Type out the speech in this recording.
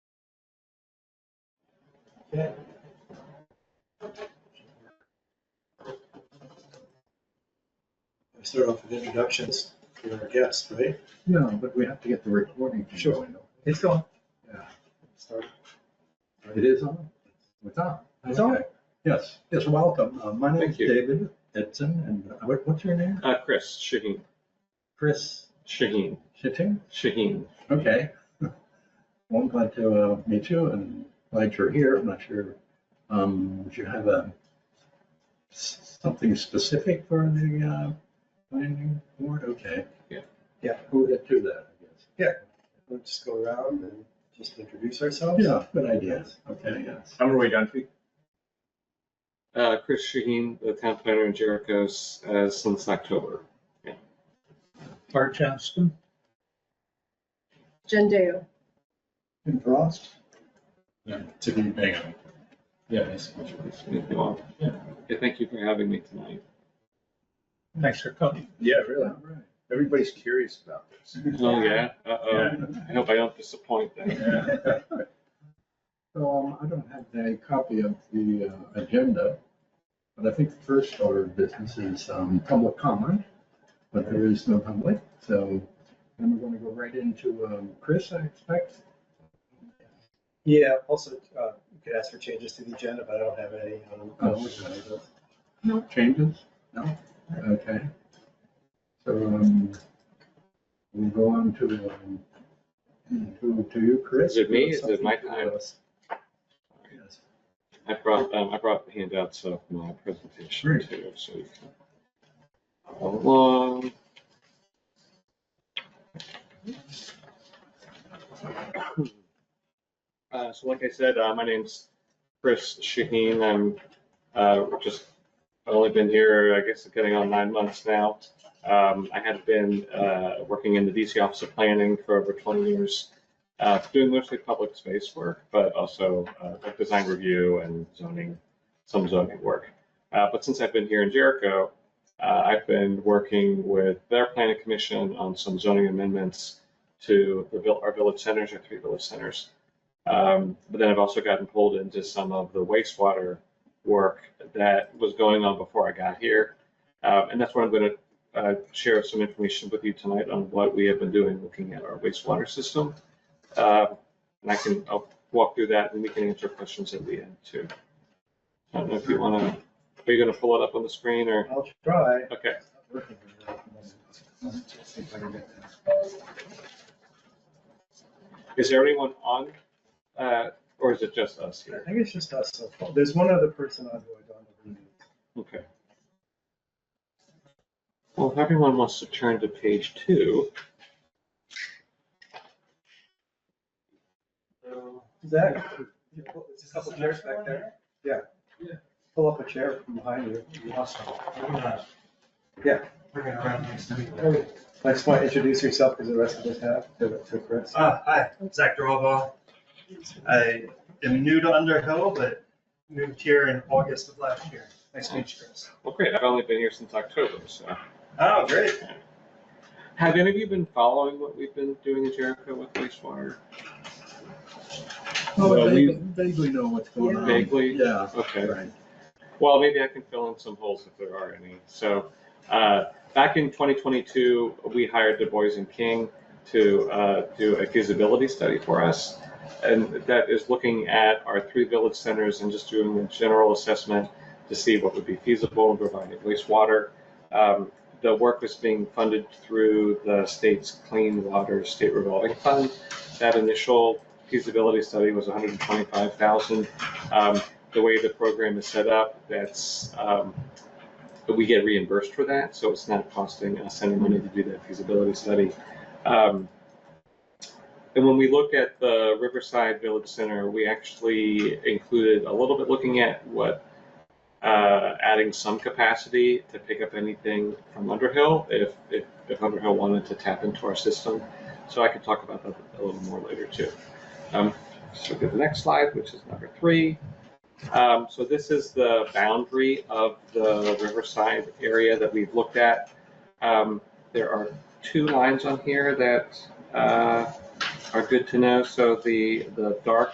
We Start off with introductions to our guests, right? No, but we have to get the recording. thing Sure. going. It's going. Start. It is on. It's on. It's on. Okay. Yes, yes, welcome. Uh, My name Thank is you. David Edson, and uh, what- what's your name? Uh, Chris, Shaheen, Chris Shaheen, Shitting? Shaheen. Okay. Well, I'm glad to uh, meet you and glad you're here. I'm not sure, um, do you have a, s- something specific for the uh, planning board? Okay. Yeah. Yeah. Who would do that, I guess? We'll just go around and just introduce ourselves. Yeah, good idea. Okay, yes. I'm Roy Dunphy. Uh, Chris Shaheen, the town planner in Jericho's, uh, since October. Bart Johnston. Jen Deo. And Frost? To be banging. Yeah, If you want. Yeah. Okay, thank you for having me tonight. Thanks for coming. Yeah, really. Everybody's curious about this. Oh, yeah? Uh-oh. Yeah. I hope I don't disappoint then. So um, I don't have a copy of the uh, agenda, but I think the first order of business is um, public comment, but there is no public, so then we're going to go right into um, Chris, I expect. Yeah, also, uh, you could ask for changes to the agenda, but I don't have any. I don't know. Oh, okay. No changes? No? Okay. So um, we'll go on to, um, to to you, Chris. Is it me? Is it my time? Yes. I brought, um, I brought the handouts of my presentation Great. too, so you can. follow Along. Uh, so like I said, uh, my name's Chris Shaheen. I'm, uh, just, I've only been here, I guess, getting on nine months now. Um, I had been, uh, working in the DC Office of Planning for over twenty years uh, doing mostly public space work, but also uh, like design review and zoning, some zoning work. Uh, but since I've been here in Jericho, uh, I've been working with their planning commission on some zoning amendments to the vil- our village centers, our three village centers. Um, but then I've also gotten pulled into some of the wastewater work that was going on before I got here. Um, and that's what I'm going to uh, share some information with you tonight on what we have been doing looking at our wastewater system. Uh, And I can, I'll walk through that and we can answer questions at the end too. I don't know if you want to, are you going to pull it up on the screen or, I'll try. okay. It's not working very well. Let's see if I can get this. Is there anyone on, uh, or is it just us I here? think it's just us so far. There's one other person on who I don't know. Okay. Well, if everyone wants to turn to page two. Zach, you pull- there's a couple chairs back there. Yeah. Pull up a chair from behind you. Yeah. I just want to introduce yourself because the rest of us have to to Chris. Uh, hi, I'm Zach Drawbaugh. I am new to Underhill, but moved here in August of last year. Nice to meet you, Chris. Well, great. I've only been here since October, so. Oh, great. Have any of you been following what we've been doing in Jericho with wastewater? Oh, Well, I we- vaguely know what's going on. Vaguely? Yeah. Okay. Right. Well, maybe I can fill in some holes if there are any. So, uh, back in 2022, we hired Du Bois and King to uh, do a feasibility study for us. And that is looking at our three village centers and just doing a general assessment to see what would be feasible in providing wastewater. Um, the work was being funded through the state's Clean Water State Revolving Fund. That initial feasibility study was 125,000. Um, the way the program is set up, that's, um, that we get reimbursed for that, so it's not costing us any money to do that feasibility study. Um, And when we looked at the Riverside Village Center, we actually included a little bit looking at what, uh, adding some capacity to pick up anything from Underhill if, if, if Underhill wanted to tap into our system. So I could talk about that a little more later too. Um, So go to the next slide, which is number three. Um, so this is the boundary of the Riverside area that we've looked at. Um, there are two lines on here that, uh, are good to know. So the, the dark